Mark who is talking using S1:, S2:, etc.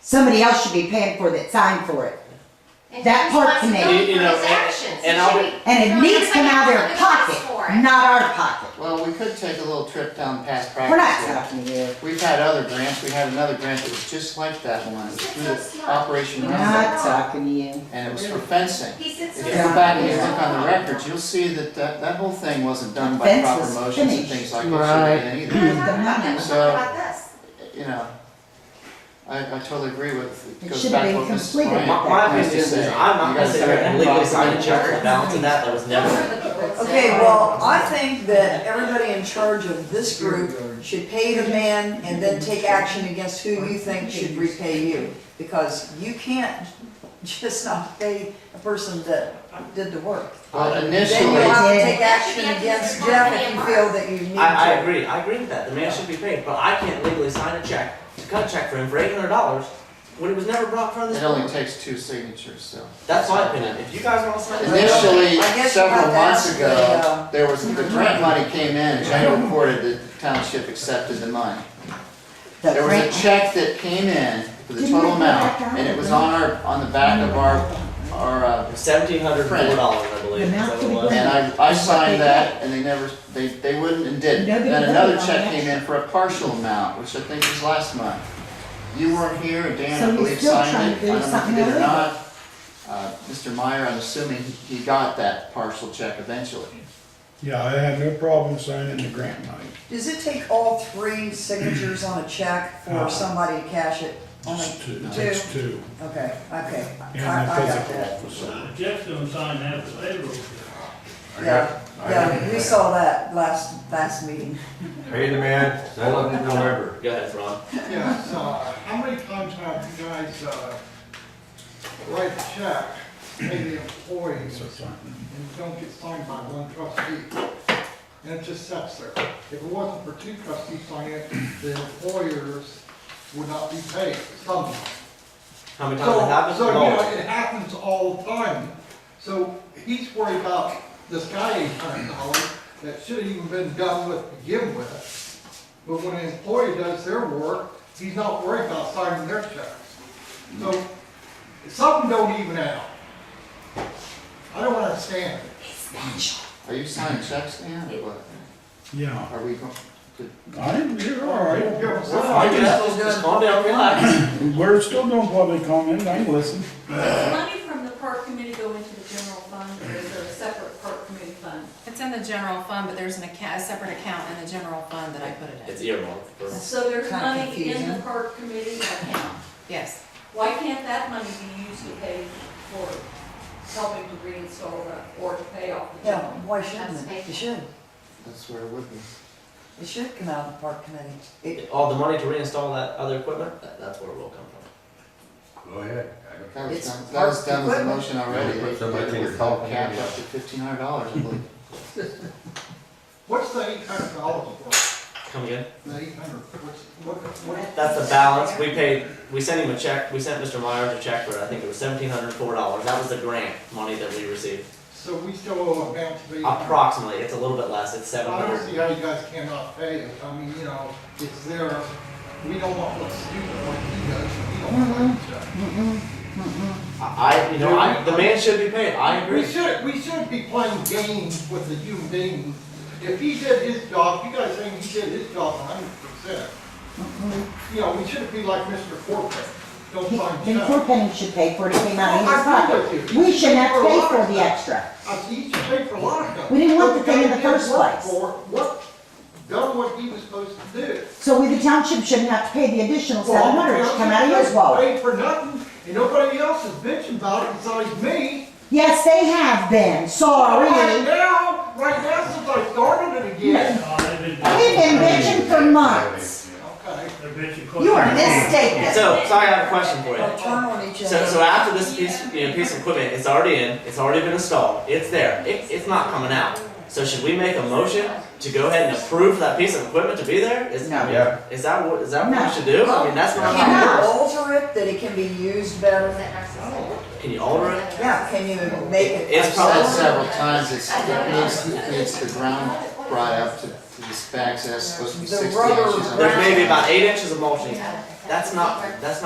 S1: somebody else should be paying for that sign for it. That part can make-
S2: You- you know,
S3: His
S2: and-
S3: actions.
S2: and
S3: He
S2: I'll-
S3: should be-
S1: And it
S3: No,
S1: needs to come out of their
S3: that's why he wants
S1: pocket,
S3: to
S1: not our pocket.
S2: Well, we could take a little trip down past practice.
S1: We're not talking to you.
S2: We've had other grants, we had another grant that was just like that one, it was through the Operation
S1: We're
S2: Roundup,
S1: not talking to you.
S2: and it was for fencing.
S3: He sits
S2: If
S3: on.
S2: you go back and you look on the records, you'll see that that, that whole thing wasn't done by
S1: Fence
S2: proper
S1: was
S2: motions and
S1: finished.
S2: things like that either, So-
S3: About this.
S2: you know. I, I totally agree with,
S1: It
S2: it goes
S1: should
S2: back
S1: have
S2: to
S1: been
S2: what Mrs.
S1: completed.
S2: Bryant
S4: My,
S2: has
S4: my
S2: to
S4: opinion is,
S2: say.
S4: is I'm
S2: You
S4: not
S2: gotta
S4: necessarily
S2: set
S4: gonna
S2: that
S4: legally
S2: box
S4: sign
S2: on
S4: a check for
S2: your-
S4: balance and that, that was never.
S5: Okay, well, I think that everybody in charge of this group should pay the man and then take action against who you think should repay you. Because you can't just not pay a person that did the work.
S2: Well,
S5: Then you
S2: initially,
S5: have to
S1: Yeah.
S5: take action against Jeff if you feel that you need to.
S4: I, I agree, I agree with that, the man should be paid, but I can't legally sign a check, to cut a check for him for eight hundred dollars, when it was never brought from this
S2: it
S4: board.
S2: only takes two signatures, so.
S4: That's my opinion, if you guys wanna sign a check.
S2: Initially,
S5: I guess you
S2: several
S5: have to
S2: months
S5: ask the,
S2: ago,
S5: uh,
S2: there was, the grant money came in, Jay reported that the township accepted the money.
S1: The
S2: There was a
S1: grant-
S2: check that came in for the
S1: Didn't
S2: total
S1: I put that
S2: amount,
S1: down?
S2: and it was on our, on the back of our, our, uh,
S4: Seventeen hundred four dollars, I believe, is
S1: The
S4: that
S1: amount
S4: what it
S1: to be
S4: was?
S1: given.
S2: and I, I signed that, and they never, they, they wouldn't and didn't.
S1: Nobody
S2: Then another
S1: voted on
S2: check
S1: that.
S2: came in for a partial amount, which I think was last month. You weren't here, and
S1: So
S2: Dan, I
S1: you're
S2: believe,
S1: still
S2: signed
S1: trying
S2: it, I
S1: to do
S2: don't know if you
S1: something
S2: did or
S1: illegal.
S2: not. Uh, Mr. Meyer, I'm assuming he got that partial check eventually.
S6: Yeah, I had no problem signing the grant money.
S5: Does it take all three signatures on a check for somebody to cash it? Only
S6: Just two,
S5: two?
S6: just two.
S5: Okay, okay. I, I
S6: And the
S5: got
S6: physical
S5: that.
S6: officer.
S7: Jeff's gonna sign that for payroll.
S5: Yeah, yeah, we saw that last, last meeting.
S8: Pay the man, settle it in November.
S4: Go ahead, Ron.
S9: Yes, uh, how many times have you guys, uh, write a check, pay the employees, and don't get signed by one trustee? And it just sits there. If it wasn't for two trustees signing it, the employers would not be paid somehow.
S4: How many times
S9: So,
S4: it happened?
S9: so, you
S4: No.
S9: know, it happens all the time. So he's worried about this guy eight hundred dollars that should have even been done with to begin with. But when an employee does their work, he's not worried about signing their checks. So something don't even out. I don't understand it.
S2: Are you signing checks, Dan, or what?
S6: Yeah,
S2: Are we going?
S6: I, you're all right.
S9: Give us
S4: Well,
S9: some-
S4: I guess, just calm down, relax.
S6: We're still doing public comment, I listen.
S10: Money from the park committee go into the general fund, or is there a separate park committee fund?
S11: It's in the general fund, but there's an account, a separate account in the general fund that I put it in.
S4: It's earmarked for.
S10: So there's
S5: Kinda
S10: money in the
S5: confusing.
S10: park committee account.
S11: Yes,
S10: Why can't that money be used to pay for helping to reinstall the- or to pay off the
S5: Yeah,
S10: general?
S5: why shouldn't it? It should.
S2: That's where it would be.
S5: It should come out of the park committee. It,
S4: All the money to reinstall that other equipment, that, that's where it will come from.
S8: Go ahead. I don't-
S2: That was
S5: It's
S2: done, that was done with the
S5: equipment.
S2: motion already.
S8: Yeah, somebody
S2: It
S8: think
S2: was
S8: it's all
S2: capped
S8: cash.
S2: up to fifteen hundred dollars, I believe.
S9: What's the eight hundred dollars for?
S4: Come again?
S9: The eight hundred, what's, what, what?
S4: That's the balance, we paid, we sent him a check, we sent Mr. Myers a check for, I think it was seventeen hundred four dollars, that was the grant money that we received.
S9: So we still owe a bounce of eight hundred.
S4: Approximately, it's a little bit less, it's seven
S9: I don't
S4: hundred.
S9: see how you guys cannot pay it, I mean, you know, it's there, we don't want what's stupid like he does, we don't want that.
S4: I, I- you know, I, the man should be paid, I
S9: We
S4: agree.
S9: should, we should be playing games with the human beings. If he did his job, you guys think he did his job hundred percent.
S1: Mm-hmm.
S9: You know, we shouldn't be like Mr. Corcoran, don't
S1: He-
S9: sign
S1: Then
S9: checks.
S1: Corpenny should pay for it, it came out of his
S9: Oh, I agree
S1: pocket.
S9: with you.
S1: We shouldn't have to pay for the extra.
S9: I see he should pay for a lot of stuff.
S1: We didn't want the
S9: But
S1: thing in the
S9: guy did
S1: first
S9: work
S1: place.
S9: for it, What, done what he was supposed to do.
S1: So we, the township, shouldn't have to pay the additional seven hundred, it should come out of his wallet.
S9: Paid for nothing, and nobody else is bitching about it besides me.
S1: Yes, they have been,
S9: Right
S1: sorry.
S9: now, right now, since I started it again.
S7: Oh, they've been-
S1: We've been bitching for months.
S9: Okay.
S7: They're bitching.
S1: You are mistaken.
S4: So, sorry, I have a question for
S5: they'll
S4: you.
S5: turn on
S4: So,
S5: each
S4: so
S5: other.
S4: after this piece, you know, piece of equipment, it's already in, it's already been installed, it's there, it, it's not coming out. So should we make a motion to go ahead and approve that piece of equipment to be there? Is,
S1: No.
S8: Yeah.
S4: is that what, is that what
S1: No.
S4: we should do? I mean, that's not
S5: Can
S4: how it
S5: you
S4: works.
S5: alter it, that it can be used better?
S4: Can you alter it?
S5: Yeah, can you make it?
S4: It's
S2: Said
S4: probably-
S5: Oh.
S2: several times, it's, it needs, it needs the ground brought up to, to this back, so that's supposed to be
S5: The
S2: sixty
S5: rubber
S2: inches.
S4: There's
S5: ground.
S4: maybe about eight inches of mulching. That's not, that's